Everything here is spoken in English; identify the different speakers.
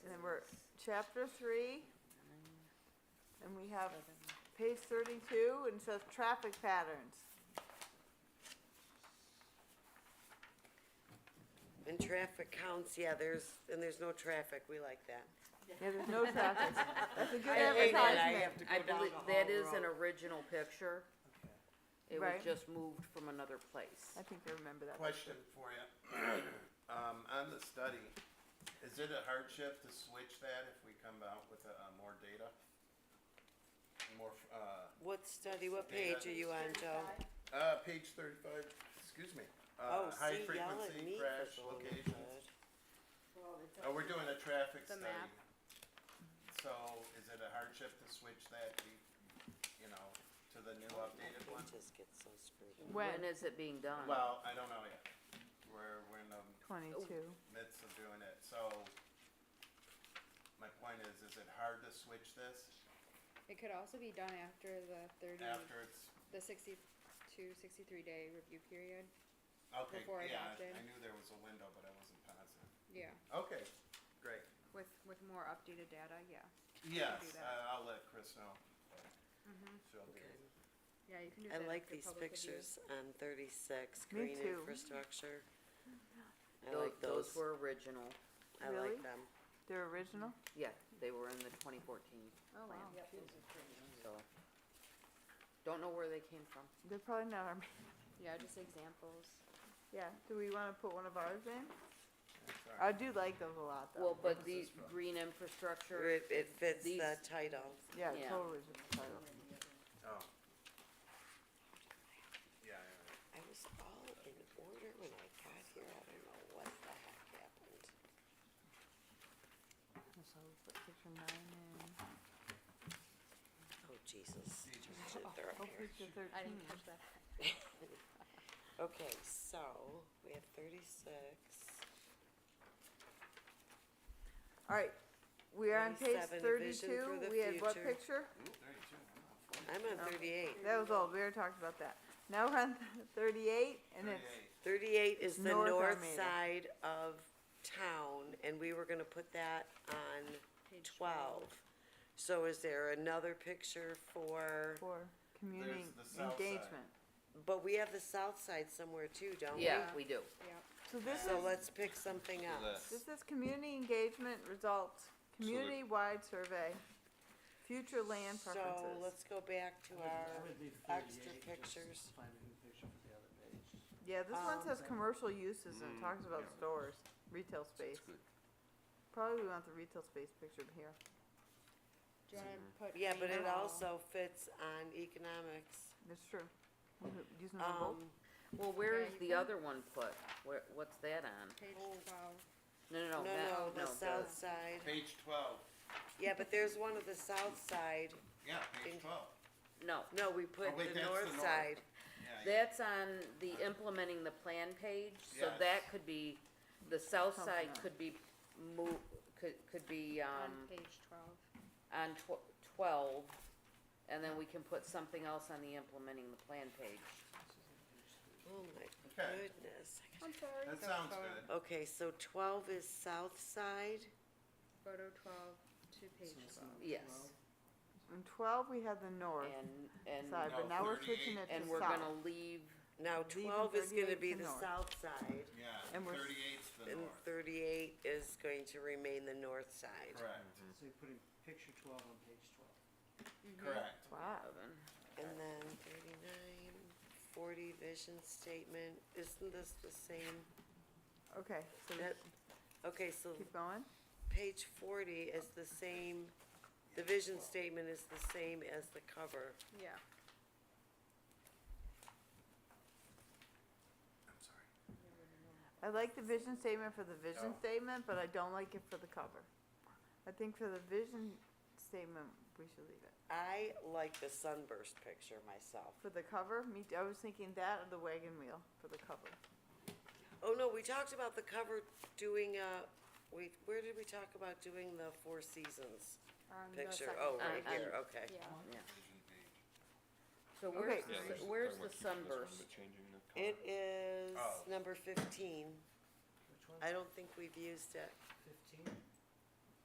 Speaker 1: chapter three, and we have page thirty-two, and it says traffic patterns.
Speaker 2: And traffic counts, yeah, there's, and there's no traffic, we like that.
Speaker 1: Yeah, there's no traffic. That's a good
Speaker 3: I ate it, I
Speaker 1: advertisement.
Speaker 2: have to
Speaker 3: I
Speaker 2: go down
Speaker 3: believe,
Speaker 2: the
Speaker 3: that
Speaker 2: whole
Speaker 3: is an
Speaker 2: road.
Speaker 3: original picture. It was
Speaker 1: Right.
Speaker 3: just moved from another place.
Speaker 1: I think I remember that.
Speaker 4: Question for you. Um, on the study, is it a hardship to switch that if we come out with, uh, more data? More, f- uh,
Speaker 2: What study, what page are you on, Joe?
Speaker 4: uh, page thirty-five, excuse me.
Speaker 2: Oh,
Speaker 4: Uh, high
Speaker 2: see, y'all at
Speaker 4: frequency
Speaker 2: me
Speaker 4: crash
Speaker 2: for going
Speaker 4: locations.
Speaker 2: good.
Speaker 4: Oh, we're doing a traffic
Speaker 5: The
Speaker 4: study.
Speaker 5: map.
Speaker 4: So is it a hardship to switch that, be- you know, to the new updated
Speaker 2: My
Speaker 4: one?
Speaker 2: pages get so screwed up.
Speaker 3: When is it being done?
Speaker 4: Well, I don't know yet. um, We're, we're in the
Speaker 1: Twenty-two.
Speaker 4: midst of doing it, so my point is, is it hard to switch this
Speaker 5: It could also be done after the thirty,
Speaker 4: after it's,
Speaker 5: the sixty-two, sixty-three day review period,
Speaker 4: okay,
Speaker 5: Before
Speaker 4: yeah,
Speaker 5: adopted.
Speaker 4: I knew there was a window, but I wasn't positive.
Speaker 5: yeah,
Speaker 4: Okay, great.
Speaker 5: with, with more updated data, yeah.
Speaker 4: Yes,
Speaker 5: that.
Speaker 4: I- I'll let Chris know.
Speaker 1: Mm-hmm.
Speaker 4: She'll do it.
Speaker 5: Yeah, you can do
Speaker 2: I
Speaker 5: that.
Speaker 2: like
Speaker 5: after
Speaker 2: these
Speaker 5: public review.
Speaker 2: pictures on thirty-six,
Speaker 1: Me
Speaker 2: green
Speaker 1: too.
Speaker 2: infrastructure. I
Speaker 3: Tho-
Speaker 2: like those,
Speaker 3: Those were original,
Speaker 2: I
Speaker 1: Really?
Speaker 2: like them.
Speaker 1: They're original?
Speaker 3: yeah, they were in the twenty fourteen,
Speaker 5: Oh, wow.
Speaker 3: so. Don't know where they came from.
Speaker 1: They're probably not our,
Speaker 5: Yeah, just examples.
Speaker 1: yeah, do we wanna put one of ours in?
Speaker 4: Sorry.
Speaker 1: I do like those a lot though.
Speaker 3: Well, but
Speaker 4: was
Speaker 3: the
Speaker 4: this from?
Speaker 3: green infrastructure,
Speaker 2: It, it fits
Speaker 3: These-
Speaker 2: the title.
Speaker 1: Yeah,
Speaker 3: yeah.
Speaker 1: totally. is a title.
Speaker 4: Oh. Yeah, yeah,
Speaker 2: I was all in order when I got here, I don't know what the heck happened.
Speaker 1: So we'll put picture nine in.
Speaker 2: Oh, Jesus.
Speaker 4: Jesus.
Speaker 2: Just shit, they're up
Speaker 1: Oh,
Speaker 2: here.
Speaker 1: picture thirteen.
Speaker 5: catch that.
Speaker 2: Okay, so, we have thirty-six.
Speaker 1: Alright, we are on page
Speaker 2: 27, vision
Speaker 1: thirty-two,
Speaker 2: for the
Speaker 1: we had what
Speaker 2: future.
Speaker 1: picture?
Speaker 4: yeah. Ooh, thirty-two, I'm off.
Speaker 2: I'm on
Speaker 1: Um,
Speaker 2: thirty-eight.
Speaker 1: That was old, we already talked about that. Now we're on thirty-eight and it's,
Speaker 4: Thirty-eight.
Speaker 2: Thirty-eight is the
Speaker 1: North
Speaker 2: north
Speaker 1: Armada.
Speaker 2: side of town, and we were gonna put that on
Speaker 3: Page
Speaker 2: twelve. So is there another picture for,
Speaker 1: for community
Speaker 4: the south side.
Speaker 1: engagement.
Speaker 2: but we have the south side somewhere too, don't we?
Speaker 3: yeah, we do.
Speaker 5: Yep.
Speaker 1: So this
Speaker 2: So
Speaker 1: is,
Speaker 2: let's pick something else.
Speaker 1: this is community engagement results, community-wide survey, future land
Speaker 2: So
Speaker 1: preferences.
Speaker 2: let's go back to our, extra pictures.
Speaker 6: Find a new picture for the other page.
Speaker 1: Yeah, this one
Speaker 2: um,
Speaker 1: says commercial uses and it talks about stores, retail space. Probably we want the retail space pictured here.
Speaker 5: Do you wanna put?
Speaker 2: yeah, but it
Speaker 5: anal-
Speaker 2: also fits on economics.
Speaker 1: That's true. Mhm, Using them both.
Speaker 2: Um,
Speaker 3: Well, where
Speaker 5: Yeah,
Speaker 3: is
Speaker 5: you
Speaker 3: the
Speaker 5: can-
Speaker 3: other one put? Where, what's that on?
Speaker 5: Page twelve.
Speaker 3: No,
Speaker 2: no,
Speaker 3: no, no,
Speaker 2: no, the
Speaker 3: that- no,
Speaker 2: south
Speaker 3: the,
Speaker 2: side,
Speaker 4: Page twelve,
Speaker 2: yeah, but there's one of the south side,
Speaker 4: yeah, page
Speaker 2: In-
Speaker 4: twelve,
Speaker 3: no.
Speaker 2: no, we put
Speaker 4: Oh, wait,
Speaker 2: the
Speaker 4: that's the
Speaker 2: north
Speaker 4: north.
Speaker 2: side.
Speaker 4: yeah, yeah.
Speaker 3: That's on the implementing the plan page, so
Speaker 4: Yes.
Speaker 3: that could be, the south
Speaker 1: Something
Speaker 3: side
Speaker 1: else.
Speaker 3: could be mo- could, could be, um,
Speaker 5: On page twelve.
Speaker 3: on tw- twelve, and then we can put something else on the implementing the plan page.
Speaker 2: Oh my
Speaker 4: Okay.
Speaker 2: goodness.
Speaker 5: I'm sorry.
Speaker 4: That sounds good.
Speaker 2: Okay, so twelve is south side,
Speaker 5: Photo twelve to page
Speaker 6: So it's
Speaker 5: twelve.
Speaker 6: not
Speaker 3: Yes,
Speaker 6: 12.
Speaker 1: In twelve, we had the north
Speaker 3: and, and,
Speaker 1: side, but
Speaker 4: No,
Speaker 1: now we're switching
Speaker 4: 38.
Speaker 1: it
Speaker 3: and
Speaker 1: to
Speaker 3: we're gonna
Speaker 1: south.
Speaker 3: leave,
Speaker 2: now
Speaker 1: Leaving
Speaker 2: twelve is gonna
Speaker 1: 38
Speaker 2: be
Speaker 1: to
Speaker 2: the
Speaker 1: north.
Speaker 2: south side,
Speaker 4: Yeah,
Speaker 1: And we're s-
Speaker 4: thirty-eight's the
Speaker 2: and
Speaker 4: north,
Speaker 2: thirty-eight is going to remain the north side.
Speaker 4: correct,
Speaker 6: So you're putting picture twelve on page twelve.
Speaker 1: Mm-hmm.
Speaker 4: correct.
Speaker 1: Wow,
Speaker 3: Evan.
Speaker 2: And then thirty-nine, forty vision statement, isn't this the same?
Speaker 1: okay, so we
Speaker 2: That- Okay, so
Speaker 1: keep going.
Speaker 2: page forty is the same, the vision statement is the same as the cover.
Speaker 5: Yeah.
Speaker 4: I'm sorry.
Speaker 1: I like the vision statement for the vision
Speaker 4: Oh.
Speaker 1: statement, but I don't like it for the cover. I think for the vision statement, we should leave it.
Speaker 2: I like the sunburst picture myself.
Speaker 1: For the cover, me, t- I was thinking that or the wagon wheel for the cover.
Speaker 2: Oh, no, we talked about the cover doing, uh, we, where did we talk about doing the Four Seasons
Speaker 5: On the
Speaker 2: picture?
Speaker 5: second
Speaker 2: Oh,
Speaker 5: page.
Speaker 2: right
Speaker 3: Uh, um,
Speaker 2: here, okay.
Speaker 5: Yeah.
Speaker 4: Vision page.
Speaker 3: So
Speaker 1: Okay.
Speaker 3: where's,
Speaker 1: Yeah,
Speaker 3: the- where's the sunburst?
Speaker 2: It is
Speaker 4: Oh.
Speaker 2: number fifteen.
Speaker 6: Which one?
Speaker 2: I don't think we've used it.